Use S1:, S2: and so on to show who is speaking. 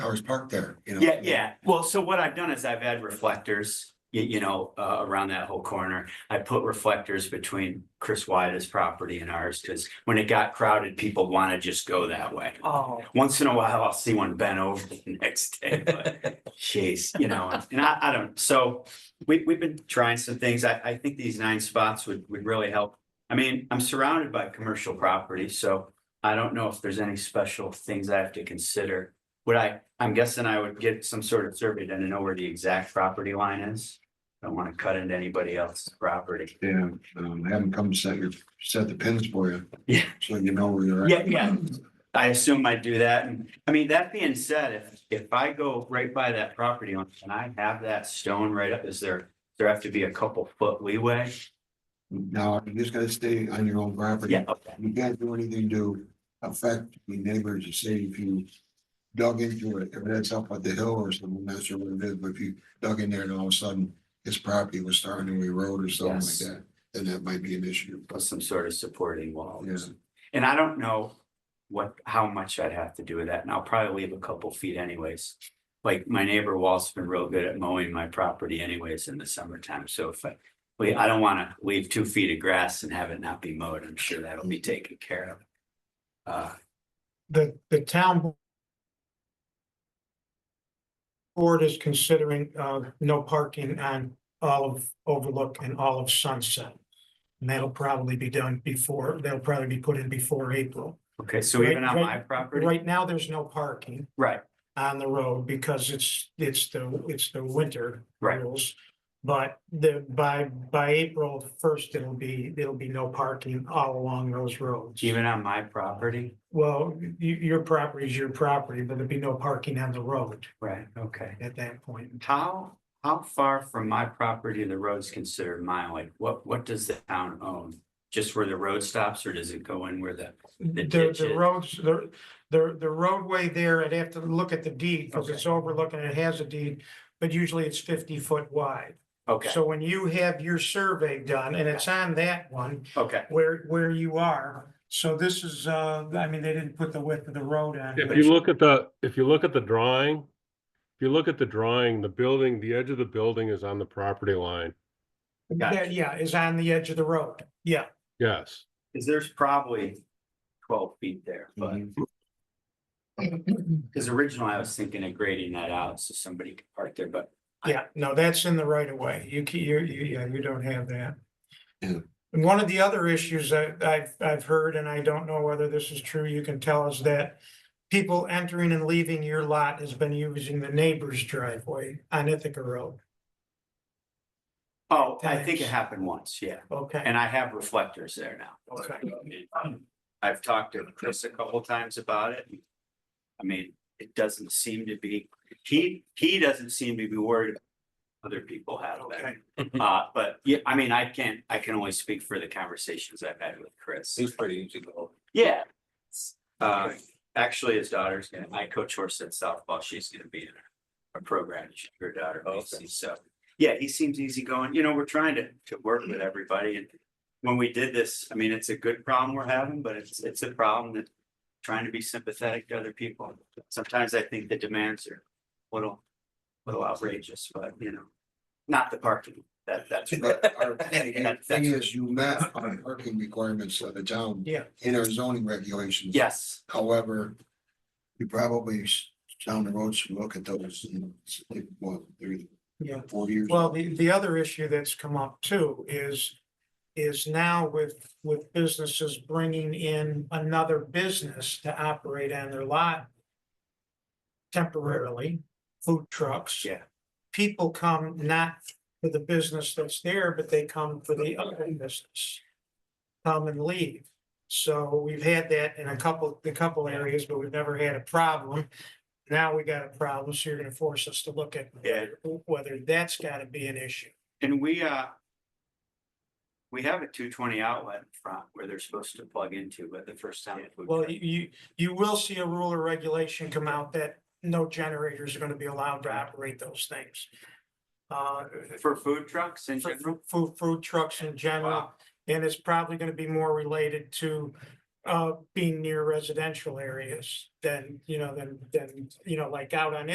S1: cars parked there, you know?
S2: Yeah, yeah. Well, so what I've done is I've had reflectors, you, you know, uh, around that whole corner. I put reflectors between Chris Wyda's property and ours, because when it got crowded, people want to just go that way.
S3: Oh,
S2: Once in a while, I'll see one bent over the next day, but jeez, you know, and- and I, I don't, so we, we've been trying some things. I, I think these nine spots would, would really help. I mean, I'm surrounded by commercial property, so I don't know if there's any special things I have to consider. Would I, I'm guessing I would get some sort of survey done to know where the exact property line is. Don't want to cut into anybody else's property.
S1: Yeah, um, have them come set your, set the pins for you.
S2: Yeah.
S1: So you know where you're at.
S2: Yeah, yeah. I assume I'd do that. And I mean, that being said, if, if I go right by that property line and I have that stone right up, is there, there have to be a couple foot leeway?
S1: Now, you just gotta stay on your own property.
S2: Yeah, okay.
S1: You can't do anything to affect the neighbors, you say if you dug into it, if that's up at the hill or something, that's sure what it is, but if you dug in there and all of a sudden his property was starting to erode or something like
S2: Yes.
S1: that, then that might be an issue.
S2: With some sort of supporting wall.
S1: Yeah.
S2: And I don't know what, how much I'd have to do with that. And I'll probably leave a couple feet anyways. Like my neighbor Walt's been real good at mowing my property anyways in the summertime. So if I, we, I don't want to leave two feet of grass and have it not be mowed. I'm sure that'll be taken care of. Uh,
S3: the, the town board is considering, uh, no parking on Olive Overlook and Olive Sunset. And that'll probably be done before, that'll probably be put in before April.
S2: okay, so even on my property,
S3: Right now, there's no parking
S2: right,
S3: on the road because it's, it's the, it's the winter
S2: Right.
S3: rules. But the, by, by April first, it'll be, it'll be no parking all along those roads.
S2: even on my property,
S3: Well, you, your property is your property, but there'd be no parking on the road
S2: right, okay.
S3: at that point.
S2: How, how far from my property the road's considered mine, like what, what does the town own? Just where the road stops or does it go in where the,
S3: The,
S2: ditch
S3: the
S2: is-
S3: roads, the, the, the roadway there, I'd have to look at the deed, because it's overlooking, it has a deed, but usually it's fifty foot wide.
S2: okay,
S3: So when you have your survey done, and it's on that one,
S2: okay.
S3: where, where you are, so this is, uh, I mean, they didn't put the width of the road on.
S2: Yeah,
S3: but
S2: but
S3: it's-
S4: If you look at the, if you look at the drawing, if you look at the drawing, the building, the edge of the building is on the property line.
S2: Gotcha.
S3: that, Yeah, is on the edge of the road, yeah.
S4: Yes,
S2: Cause there's probably twelve feet there, but,
S3: Mhm.
S2: cause originally I was thinking of grading that out so somebody could park there, but
S3: Yeah, no, that's in the right of way. You can, you, you, yeah, you don't have that.
S1: Yeah.
S3: And one of the other issues that I've, I've heard, and I don't know whether this is true, you can tell us that people entering and leaving your lot has been using the neighbor's driveway on Ithaca Road.
S2: Oh, I think it happened once, yeah.
S3: Okay,
S2: And I have reflectors there now.
S3: Okay.
S2: I've talked to Chris a couple times about it. I mean, it doesn't seem to be, he, he doesn't seem to be worried. Other people have
S3: okay.
S2: that, uh, but yeah, I mean, I can't, I can only speak for the conversations I've had with Chris.
S5: He's pretty easy to hold.
S2: Yeah. Uh, actually, his daughter's gonna, I coach horse at softball, she's gonna be in a, a program, she- her daughter, obviously, so. Yeah, he seems easygoing, you know, we're trying to, to work with everybody and. When we did this, I mean, it's a good problem we're having, but it's, it's a problem that. Trying to be sympathetic to other people, sometimes I think the demands are a little, little outrageous, but you know. Not the parking, that, that's.
S1: But our
S2: That's-
S1: thing is, you met our parking requirements of the town
S3: Yeah,
S1: in our zoning regulations.
S2: Yes,
S1: However, you probably sh- down the road should look at those, you know, it's like, what, three,
S3: yeah.
S1: four years.
S3: Well, the, the other issue that's come up too is, is now with, with businesses bringing in another business to operate on their lot temporarily, food trucks.
S2: Yeah.
S3: People come not for the business that's there, but they come for the other business. Come and leave. So we've had that in a couple, a couple areas, but we've never had a problem. Now we got a problem, so you're gonna force us to look at
S2: Yeah.
S3: whether that's gotta be an issue.
S2: and we, uh. We have a two twenty outlet in front where they're supposed to plug into, but the first time. it would-
S3: Well, you, you, you will see a rule or regulation come out that no generators are gonna be allowed to operate those things. Uh,
S2: For food trucks and
S3: for food, food trucks in general,
S2: wow,
S3: and it's probably gonna be more related to uh, being near residential areas, then, you know, then, then, you know, like out on